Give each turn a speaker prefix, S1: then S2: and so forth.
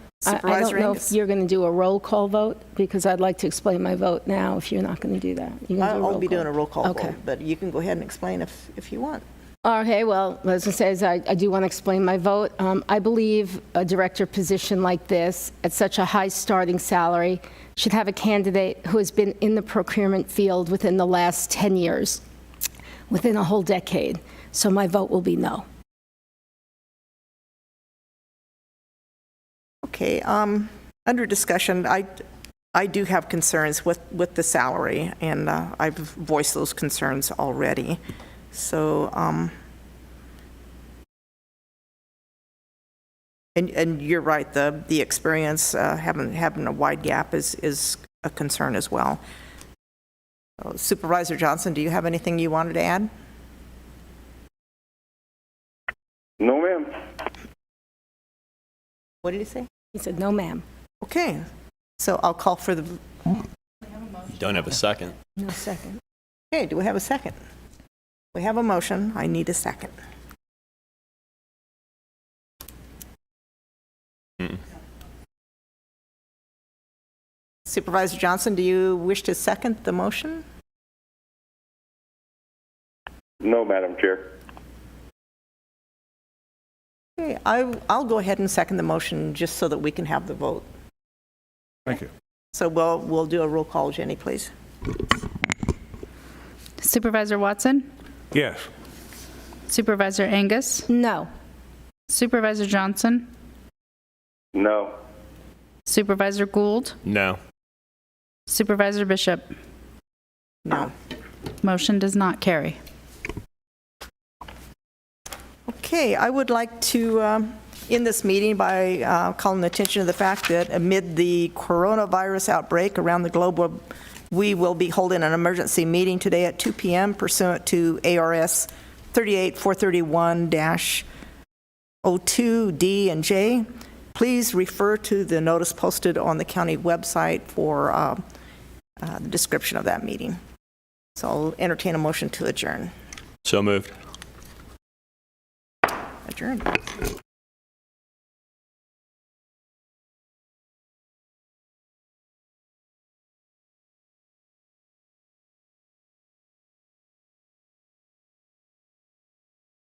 S1: I- I
S2: Supervisor
S1: don't know
S2: Angus?
S1: if you're going to do a roll call vote, because I'd like to explain my vote now if you're not going to do that. You're gonna
S3: I'll
S1: do
S3: I'll be
S1: roll call.
S3: doing a roll call
S1: Okay.
S3: vote, but you can go ahead and explain if, if you want.
S1: Okay, Oh, well, as I say, I I do want to explain my vote. Um, I believe a director position like this, at such a high starting salary, should have a candidate who has been in the procurement field within the last 10 years, within a whole decade. So my vote will be no.
S2: Okay, um, under discussion, I, I do have concerns with, with the salary, and uh, I've voiced those concerns already. So, um, and, and you're right, the, the experience, uh, having, having a wide gap is, is a concern as well. Supervisor Johnson, do you have anything you wanted to add?
S4: No, ma'am.
S3: What did he say?
S1: He said, "No, ma'am."
S2: Okay, so I'll call for the,
S5: Don't have a second.
S3: No second.
S2: okay, do we have a second? We have a motion, I need a second. Supervisor Johnson, do you wish to second the motion?
S4: No, Madam Chair.
S2: Okay, I, I'll go ahead and second the motion just so that we can have the vote.
S6: Thank you.
S2: So we'll, we'll do a roll call, Jenny, please.
S7: Supervisor Watson,
S6: Yes.
S7: Supervisor Angus,
S1: No.
S7: Supervisor Johnson,
S4: No.
S7: Supervisor Gould,
S5: No.
S7: Supervisor Bishop.
S2: No.
S7: Motion does not carry.
S2: Okay, I would like to um, end this meeting by uh, calling attention to the fact that amid the coronavirus outbreak around the globe, we'll- we will be holding an emergency meeting today at 2 PM pursuant to ARS 38431-02D and J. Please refer to the notice posted on the county website for uh, uh, the description of that meeting. So I'll entertain a motion to adjourn.
S5: So moved.
S2: Adjourn.